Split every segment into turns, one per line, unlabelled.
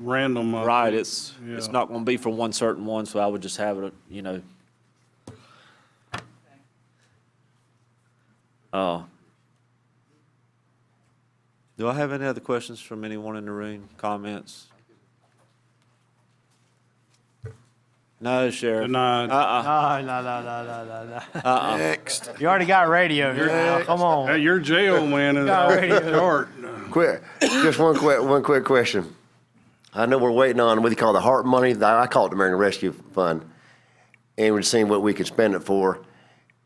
random. uh, I
Right,
think.
it's, it's
Yeah.
not gonna be for one certain one, so I would just have it, you know. Uh, Do I have any other questions from anyone in the room, comments? No, Sheriff.
Denied.
Uh-uh,
No, no, no, no, no, no, no.
uh-uh.
Next.
You already got radio here now. Come
Hey,
on.
your jail man is off
Already.
the chart.
Quick, just one quick, one quick question. I know we're waiting on what you call the heart money. the- I call it the American Rescue Fund, and we're seeing what we could spend it for.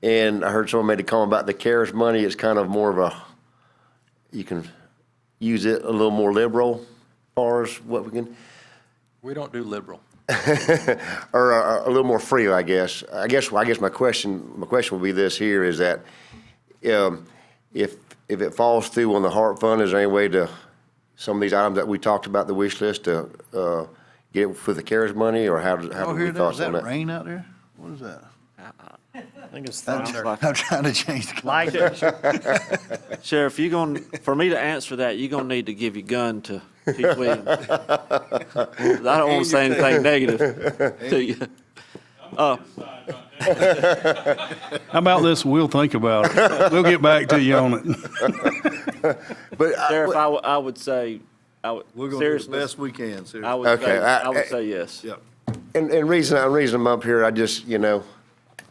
And I heard someone made a comment about the CARES money. It's kind of more of a you can use it a little more liberal, as far as what we can,
We don't do liberal.
or uh, a, a little more free, I guess. I guess. I guess my question, my question will be this: here is that um, if if it falls through on the heart fund, is there any way to some of these items that we talked about the wish list to uh, get it for the CARES money, or how does how
Oh,
do we
here there, is
thoughts on
that
that?
rain out there? What is that?
I think it's
I'm
thunder.
I'm trying to change the.
Like it.
Sheriff, you gonna, for me to answer that, you gonna need to give your gun to Chief Williams. I don't wanna say anything negative to you.
How about this? We'll think about it. We'll get back to you on it.
But I-
Sheriff, I, w- I would say, I would,
We're gonna do the
seriously,
best we can, seriously.
I would say,
Okay, I-
I would say yes.
Yep.
and, and reason I reason I'm up here, I just you know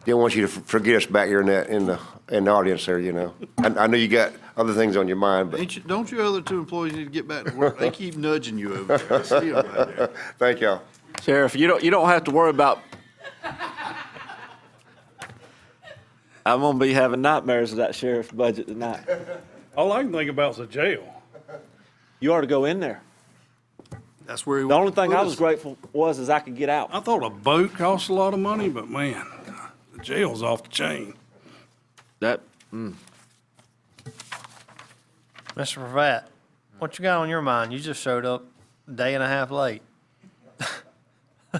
didn't want you to f- forget us back here in that in the in the audience there. You know, I, I know you got other things on your mind, but
Ain't you, don't your other two employees need to get back to work? They keep nudging you over there. I see 'em right there.
thank y'all.
Sheriff, you don't, you don't have to worry about. I'm gonna be having nightmares of that sheriff's budget tonight.
All I can think about is a jail.
You ought to go in there.
That's where he.
The only thing I was grateful was is I could get out.
I thought a boat costs a lot of money, but man, the jail's off the chain.
That,
Mr. Pratt, what you got on your mind? You just showed up a day and a half late.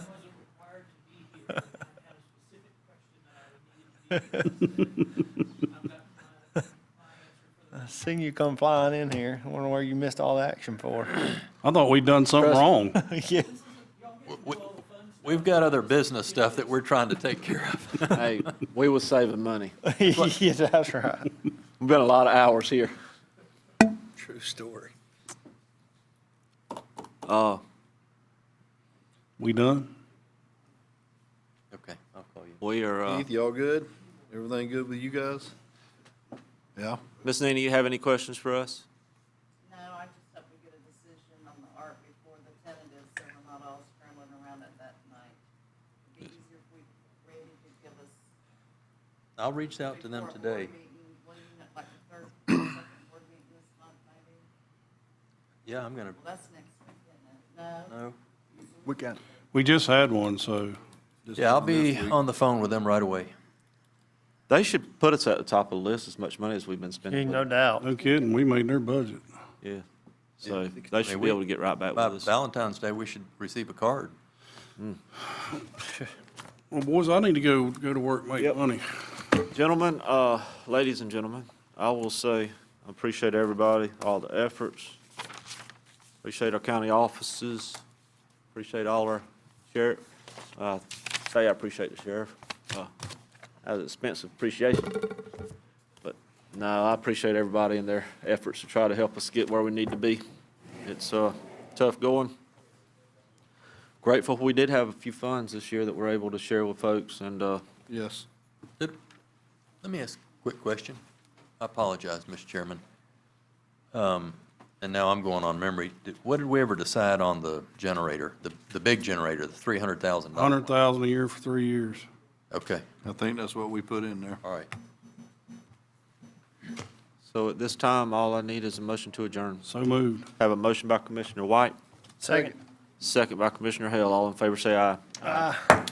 I seen you come flying in here. I wonder where you missed all the action for.
I thought we'd done something
Trust-
wrong.
yeah.
We- We've got other business stuff that we're trying to take care of.
hey, we was saving money.
yeah, that's right.
We've been a lot of hours here.
True story.
Uh,
We done?
Okay, I'll call you.
we are, uh,
Keith, y'all good? Everything good with you guys? Yeah?
Ms. Nina, you have any questions for us?
No, I just hope we get a decision on the art before the tentative, so we're not all scrambling around at that night. It'd be easier if we, Randy could give us.
I'll reach out to them
before a board
today.
meeting, When, like the third, second board meeting this month, maybe?
Yeah, I'm gonna,
Well, that's next week, isn't it? No?
no.
We can.
We just had one, so.
Yeah, I'll be on the phone with them right away.
They should put us at the top of the list as much money as we've been spending.
No
with
doubt.
No kidding, we made their budget.
it. Yeah. So
I
they should
mean,
be
we-
able to get right back
By
with us.
Valentine's Day, we should receive a card.
Well, boys, I need to go, go to work, make
Yep.
money.
Gentlemen, uh, ladies and gentlemen, I will say, I appreciate everybody, all the efforts. Appreciate our county offices. Appreciate all our sheriff. Uh, say I appreciate the sheriff. Uh, That was expensive appreciation. But no, I appreciate everybody and their efforts to try to help us get where we need to be. It's, uh, tough going. Grateful we did have a few funds this year that we're able to share with folks and, uh,
Yes.
Did- Let me ask a quick question. I apologize, Mr. Chairman. Um, And now I'm going on memory. Did- What did we ever decide on the generator, the, the big generator, the $300,000?
Hundred thousand a year for three years.
Okay,
I think that's what we put in there.
all right.
So at this time, all I need is a motion to adjourn.
So moved.
Have a motion by Commissioner White,
Second.
second by Commissioner Hale. All in favor, say aye.